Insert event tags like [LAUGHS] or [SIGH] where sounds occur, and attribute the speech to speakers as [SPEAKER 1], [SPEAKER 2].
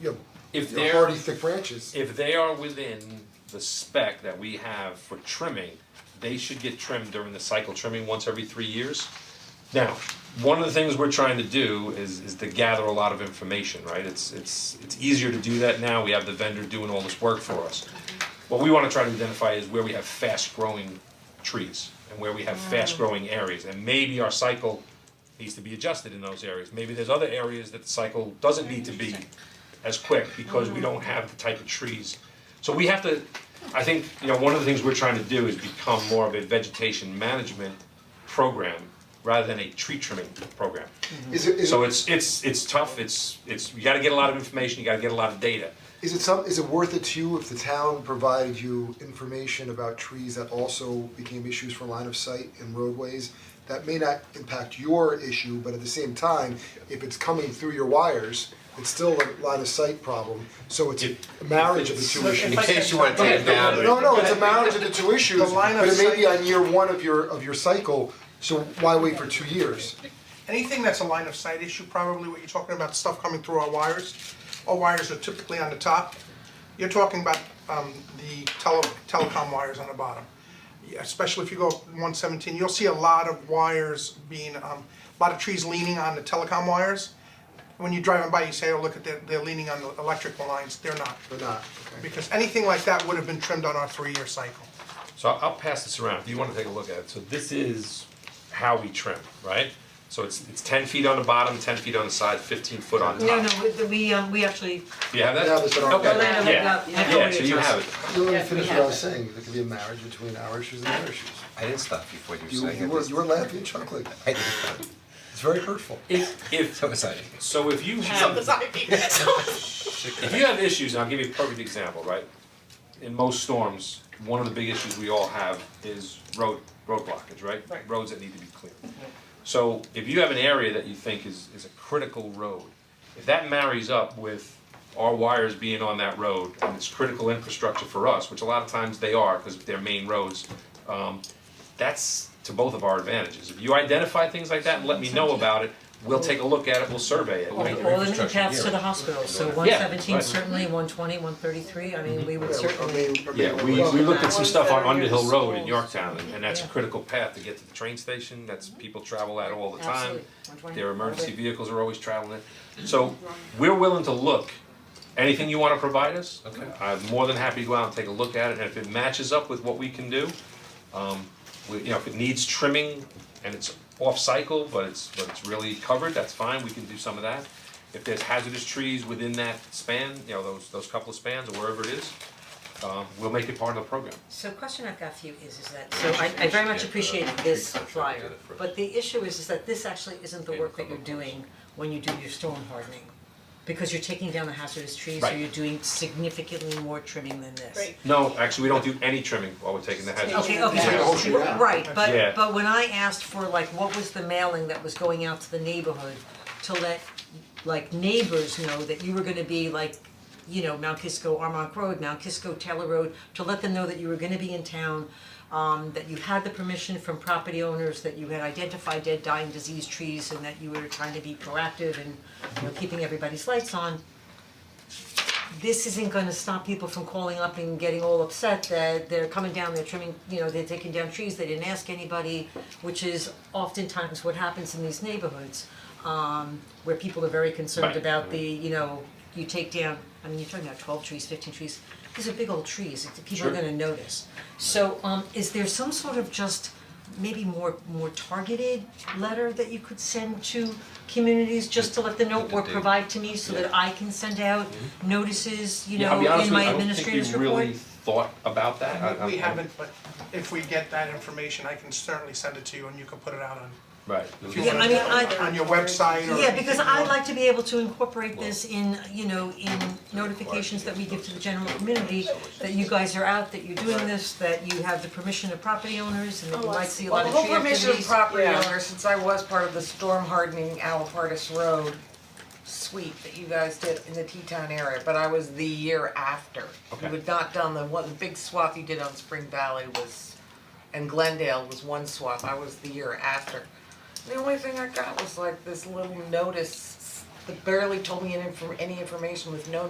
[SPEAKER 1] you know,
[SPEAKER 2] If
[SPEAKER 1] your
[SPEAKER 2] they're-
[SPEAKER 1] hardy thick branches.
[SPEAKER 2] If they are within the spec that we have for trimming, they should get trimmed during the cycle trimming once every three years. Now, one of the things we're trying to do is is to gather a lot of information, right? It's it's it's easier to do that now, we have the vendor doing all this work for us. What we wanna try to identify is where we have fast growing trees and where we have fast growing areas and maybe our cycle needs to be adjusted in those areas. Maybe there's other areas that the cycle doesn't need to be as quick because we don't have the type of trees. So we have to, I think, you know, one of the things we're trying to do is become more of a vegetation management program rather than a tree trimming program.
[SPEAKER 3] Is it, is
[SPEAKER 2] So
[SPEAKER 3] it,
[SPEAKER 2] it's it's it's tough, it's it's, you gotta get a lot of information, you gotta get a lot of data.
[SPEAKER 3] is it some, is it worth it to you if the town provided you information about trees that also became issues for line of sight and roadways? That may not impact your issue, but at the same time, if it's coming through your wires, it's still a line of sight problem, so it's
[SPEAKER 2] If-
[SPEAKER 3] a marriage of the two issues.
[SPEAKER 4] In case you want to take it down.
[SPEAKER 3] No, no,
[SPEAKER 2] [LAUGHS]
[SPEAKER 3] it's a marriage of the two issues,
[SPEAKER 4] The line of
[SPEAKER 3] but it may be
[SPEAKER 4] sight-
[SPEAKER 3] on year one of your, of your cycle, so why wait for two years?
[SPEAKER 4] Anything that's a line of sight issue, probably what you're talking about, stuff coming through our wires, our wires are typically on the top. You're talking about um the tele telecom wires on the bottom. Yeah, Especially if you go one seventeen, you'll see a lot of wires being, um a lot of trees leaning on the telecom wires. When you're driving by, you say, oh, look at, they're they're leaning on the electrical lines, they're not.
[SPEAKER 3] Or not, okay.
[SPEAKER 4] Because anything like that would have been trimmed on our three-year cycle.
[SPEAKER 2] So I'll I'll pass this around, if you wanna take a look at it, so this is how we trim, right? So it's it's ten feet on the bottom, ten feet on the side, fifteen foot on top.
[SPEAKER 5] No, no, we- we, um, we actually,
[SPEAKER 2] Do you have that?
[SPEAKER 3] Yeah, that's what I'm-
[SPEAKER 2] Okay,
[SPEAKER 5] Orlando had
[SPEAKER 2] yeah,
[SPEAKER 5] that. Yeah.
[SPEAKER 2] yeah, so you have it.
[SPEAKER 3] You let me
[SPEAKER 5] Yeah, we
[SPEAKER 3] finish what
[SPEAKER 5] have
[SPEAKER 3] I was
[SPEAKER 5] it.
[SPEAKER 3] saying, there could be a marriage between our issues and their issues.
[SPEAKER 6] I didn't stop you before you
[SPEAKER 3] You,
[SPEAKER 6] were saying
[SPEAKER 3] you
[SPEAKER 6] it.
[SPEAKER 3] were, you were laughing and chuckling.
[SPEAKER 6] I didn't stop.
[SPEAKER 3] It's very hurtful.
[SPEAKER 2] If if
[SPEAKER 6] So excited.
[SPEAKER 2] So if you have, if you have issues, and I'll give you a perfect example, right? In most storms, one of the big issues we all have is road, road blockage, right?
[SPEAKER 4] Right.
[SPEAKER 2] Roads that need to be cleared. So if you have an area that you think is, is a critical road, if that marries up with our wires being on that road and it's critical infrastructure for us, which a lot of times they are, because they're main roads, um, that's to both of our advantages. If you identify things like that and let me know about it, we'll take a look at it, we'll survey it.
[SPEAKER 5] all
[SPEAKER 2] Like,
[SPEAKER 5] all the new paths to the hospital, so one seventeen
[SPEAKER 2] right. Mm-hmm.
[SPEAKER 5] certainly, one twenty, one thirty-three, I mean, we would
[SPEAKER 3] Yeah, I
[SPEAKER 5] certainly.
[SPEAKER 3] mean, I mean,
[SPEAKER 2] Yeah, we
[SPEAKER 3] well,
[SPEAKER 2] we looked at some stuff on
[SPEAKER 7] Ones that are near
[SPEAKER 2] Underhill
[SPEAKER 7] the
[SPEAKER 2] Road in
[SPEAKER 7] schools.
[SPEAKER 2] Yorktown, and- and that's a
[SPEAKER 5] Yeah.
[SPEAKER 2] critical path to get to the train station, that's, people travel that all the time.
[SPEAKER 5] Absolutely. 120.
[SPEAKER 2] Their emergency vehicles are always traveling it, so we're willing to look, anything you wanna provide us? Okay. I'm more than happy to go out and take a look at it, and if it matches up with what we can do, um, we, you know, if it needs trimming and it's off-cycle, but it's, but it's really covered, that's fine, we can do some of that. If there's hazardous trees within that span, you know, those, those couple of spans or wherever it is, um, we'll make it part of the program.
[SPEAKER 5] So question I've got for you is, is that, so I, I very much
[SPEAKER 2] uh,
[SPEAKER 5] appreciate this flyer, but the issue is, is that this actually isn't the work that you're doing when you do your storm hardening. Because you're taking down the hazardous trees, so
[SPEAKER 2] Right.
[SPEAKER 5] you're doing significantly more trimming than this.
[SPEAKER 7] Right.
[SPEAKER 2] No, actually, we don't do any trimming while we're taking the hazardous.
[SPEAKER 5] Okay, okay,
[SPEAKER 3] Yeah,
[SPEAKER 5] so-
[SPEAKER 3] the whole shoot out.
[SPEAKER 5] right,
[SPEAKER 2] Yeah.
[SPEAKER 5] but but when I asked for like what was the mailing that was going out to the neighborhood to let like neighbors know that you were gonna be like, you know, Mount Kisco Armonk Road, Mount Kisco Taylor Road, to let them know that you were gonna be in town, um that you had the permission from property owners, that you had identified dead, dying, diseased trees, and that you were trying to be proactive and, you know, keeping everybody's lights on this isn't gonna stop people from calling up and getting all upset that they're coming down, they're trimming, you know, they're taking down trees, they didn't ask anybody, which is oftentimes what happens in these neighborhoods, um, where people are very concerned
[SPEAKER 2] Right.
[SPEAKER 5] about the, you know, you take down, I mean, you're talking about twelve trees, fifteen trees, these are big old trees, it's- people are
[SPEAKER 2] Sure.
[SPEAKER 5] gonna notice. So, um, is there some sort of just maybe more, more targeted letter that you could send to communities just to let them know or provide to me so that I can send out notices, you
[SPEAKER 2] Mm-hmm. Yeah, I'll
[SPEAKER 5] know,
[SPEAKER 2] be honest with
[SPEAKER 5] in my
[SPEAKER 2] you, I don't
[SPEAKER 5] administrator's
[SPEAKER 2] think we
[SPEAKER 5] report?
[SPEAKER 2] really thought about that. I- I'm-
[SPEAKER 4] We
[SPEAKER 2] I'm-
[SPEAKER 4] haven't, but if we get that information, I can certainly send it to you and you can put it out on,
[SPEAKER 2] Right.
[SPEAKER 4] if you
[SPEAKER 5] Yeah,
[SPEAKER 4] want,
[SPEAKER 5] I mean, I-
[SPEAKER 4] on your website or.
[SPEAKER 5] Yeah, because I'd like to be able to incorporate this in, you know, in notifications that we give to the general community, that you guys are out, that you're doing this, that you have the permission of property owners and that you might see a lot of tree
[SPEAKER 7] Oh, Well, the whole permission of
[SPEAKER 5] activities.
[SPEAKER 7] property owners, since I was part of the storm hardening Alapartis Road sweep that you guys did in the Teton area, but I was the year after.
[SPEAKER 2] Okay.
[SPEAKER 7] You had not done the one, the big swath you did on Spring Valley was, and Glendale was one swath, I was the year after. The only thing I got was like this little notice that barely told me any inform, any information with no